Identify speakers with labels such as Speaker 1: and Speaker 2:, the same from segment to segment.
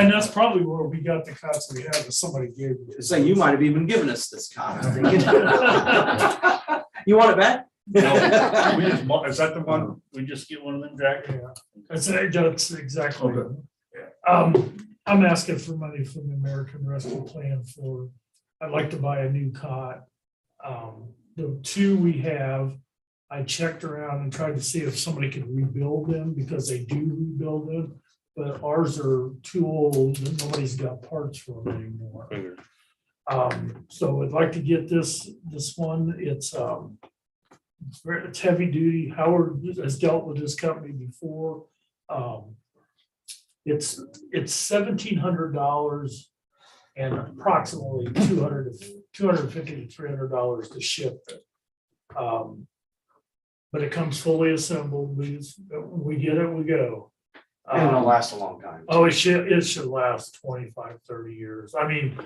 Speaker 1: And that's probably where we got the cops we had, that somebody gave. me.
Speaker 2: So you might have even given us this card. I'm thinking. You want it back?
Speaker 3: We just, mo- is that the one, we just get one of them jackets?
Speaker 1: Yeah, That's, that's exactly. Um, I'm asking for money from the American Rescue Plan for, I'd like to buy a new cot. Um, the two we have, I checked around and tried to see if somebody could rebuild them because they do rebuild them. But ours are too old and nobody's got parts for them anymore. Um, so I'd like to get this, this one, it's, um, it's very- it's heavy duty. Howard has dealt with this company before. Um, it's, it's seventeen hundred dollars and approximately two hundred, two hundred and fifty to three hundred dollars to ship it. Um, But it comes fully assembled. We, just- we get it, we go.
Speaker 2: And
Speaker 1: Um,
Speaker 2: it'll last a long time.
Speaker 1: Oh, it should, it should last 25, 30 years. I mean,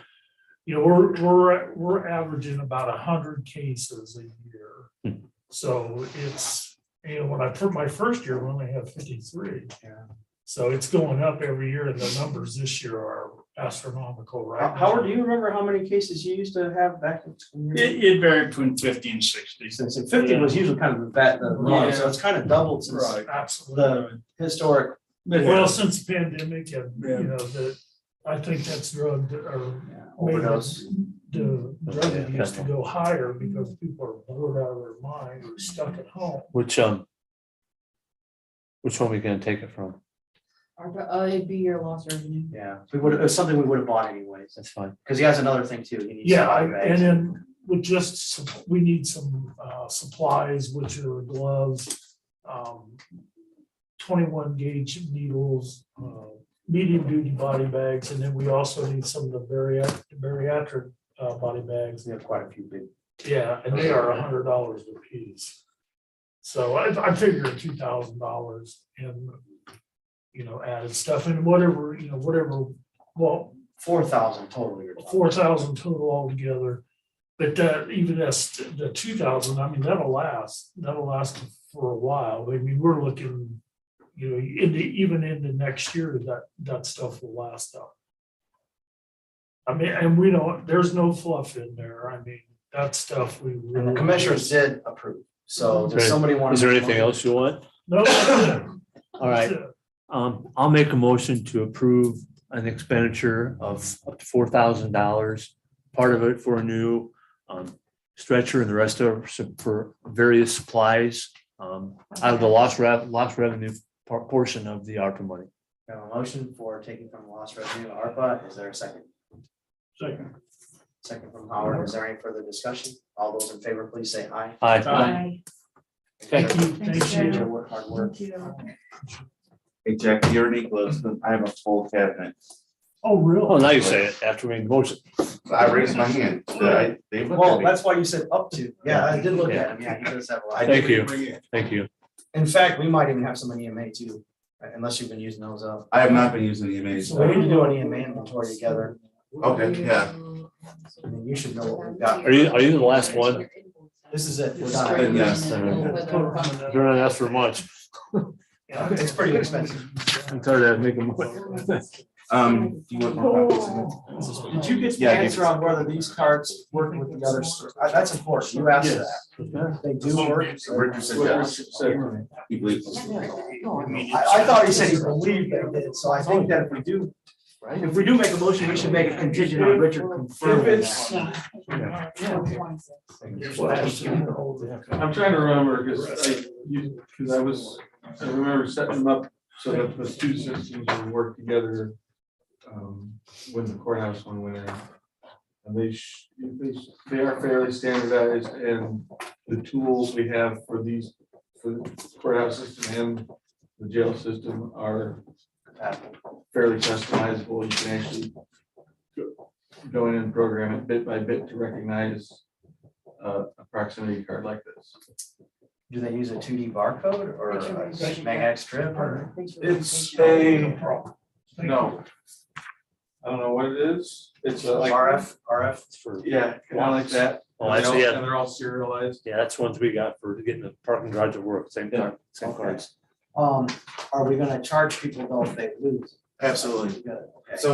Speaker 1: you know, we're, we're, we're averaging about hundred cases a year. So it's, you know, when I put my first year, we only had fifty-three.
Speaker 2: Yeah.
Speaker 1: So it's going up every year and the numbers this year are astronomical,
Speaker 2: How-
Speaker 1: right?
Speaker 2: Howard, do you remember how many cases you used to have back? in-
Speaker 3: It, it varied between fifty and sixty.
Speaker 2: Since it- fifteen was usually kind of the bat, the norm, so it's kind of doubled since
Speaker 1: Absolutely.
Speaker 2: the historic.
Speaker 1: Well, since pandemic and,
Speaker 3: Yeah.
Speaker 1: you know, the, I think that's drug or
Speaker 2: yeah,
Speaker 1: made
Speaker 2: Overdose.
Speaker 1: The drug
Speaker 4: Yeah,
Speaker 1: abuse to go higher because people are bored out of their mind or stuck at home.
Speaker 4: Which, um, which one are we gonna take it from?
Speaker 5: ARPA, oh, it'd be your loss revenue.
Speaker 2: Yeah, we would, it was something we would have bought anyways,
Speaker 4: That's fine.
Speaker 2: because he has another thing too. He needs
Speaker 1: Yeah,
Speaker 2: some
Speaker 1: I- and
Speaker 2: bags.
Speaker 1: then we just, sup- we need some uh, supplies, which are gloves, um, twenty-one gauge needles, uh, medium duty body bags, and then we also need some of the bariatric, bariatric uh, body bags.
Speaker 2: We have quite a few big.
Speaker 1: Yeah, and they are a hundred dollars a piece. So I, I figure two thousand dollars and, you know, added stuff and whatever, you know, whatever, well,
Speaker 2: Four thousand total. we were talking.
Speaker 1: four thousand total altogether. But that, even that's the two thousand, I mean, that'll last, that'll last for a while. I mean, we're looking, you know, in the, even in the next year, that, that stuff will last up. I mean, and we don't, there's no fluff in there. I mean, that stuff we.
Speaker 2: And the
Speaker 1: really-
Speaker 2: commissioners did approve, so does
Speaker 4: Okay.
Speaker 2: somebody want?
Speaker 4: Is there anything else you want?
Speaker 1: No.
Speaker 4: All right, um, I'll make a motion to approve an expenditure of up to four thousand dollars. Part of it for a new, um, stretcher and the rest of some- for various supplies, um, out of the lost rev, lost revenue par- portion of the ARPA money.
Speaker 2: We have a motion for taking from lost revenue to ARPA. Is there a second?
Speaker 1: Second.
Speaker 2: Second from Howard. Is there any further discussion? All those in favor, please say aye.
Speaker 4: Aye.
Speaker 5: Aye.
Speaker 1: Thank you,
Speaker 5: Thanks,
Speaker 1: thank
Speaker 2: Appreciate
Speaker 1: you.
Speaker 2: your work, hard work.
Speaker 5: Thank you.
Speaker 6: Hey Jack, you're Nicholas, I have a full cabinet.
Speaker 1: Oh,
Speaker 4: Oh,
Speaker 1: really?
Speaker 4: now you say it after we made the motion.
Speaker 6: I raised my hand. I- They looked
Speaker 2: Well,
Speaker 6: at me.
Speaker 2: that's why you said up to. Yeah, I did look at him. Yeah, he does have a
Speaker 6: I
Speaker 2: lot.
Speaker 4: Thank
Speaker 6: didn't
Speaker 4: you.
Speaker 6: bring it.
Speaker 4: Thank you.
Speaker 2: In fact, we might even have some in EMA too, unless you've been using those up.
Speaker 6: I have not been using EMAs.
Speaker 2: So we need to do an EMA inventory together.
Speaker 6: Okay, yeah.
Speaker 2: I mean, you should know what we've got.
Speaker 4: Are you, are you the last one?
Speaker 2: This is it. We're
Speaker 6: Then
Speaker 2: done.
Speaker 6: yes.
Speaker 4: You're not asked for much.
Speaker 2: Yeah, It's pretty expensive.
Speaker 4: I'm tired of making. mo-
Speaker 6: Um, do you want more copies? of
Speaker 1: Oh.
Speaker 6: it?
Speaker 2: Did you get the
Speaker 6: Yeah, I
Speaker 2: answer
Speaker 6: guess.
Speaker 2: on whether these cards work with the others? Uh, That's important. You asked that. They do work. so-
Speaker 6: Richard said yes. You believe?
Speaker 2: I, I thought he said he believed that it did, so I think that if we do, if we do make a motion, we should make it contingent on Richard confirming that.
Speaker 7: I'm trying to remember, because I, you, because I was, I remember setting them up so that the two systems would work together. um, When the courthouse one went in. And they, sh- they, sh- they are fairly standardized and the tools we have for these, for the courthouse system and the jail system are fairly customizable. You can actually go- go in and program it bit by bit to recognize uh, a proximity card like this.
Speaker 2: Do they use a two D barcode or a magnetic strip or?
Speaker 7: It's a, no. I don't know what it is. It's a like.
Speaker 2: RF, RF?
Speaker 7: Yeah, kind of like that.
Speaker 4: Oh, I see it.
Speaker 7: And they're all serialized.
Speaker 4: Yeah, that's ones we got for getting the parking garage to work, same time, same
Speaker 2: Okay.
Speaker 4: cards.
Speaker 2: Um, are we gonna charge people though if they lose? Absolutely.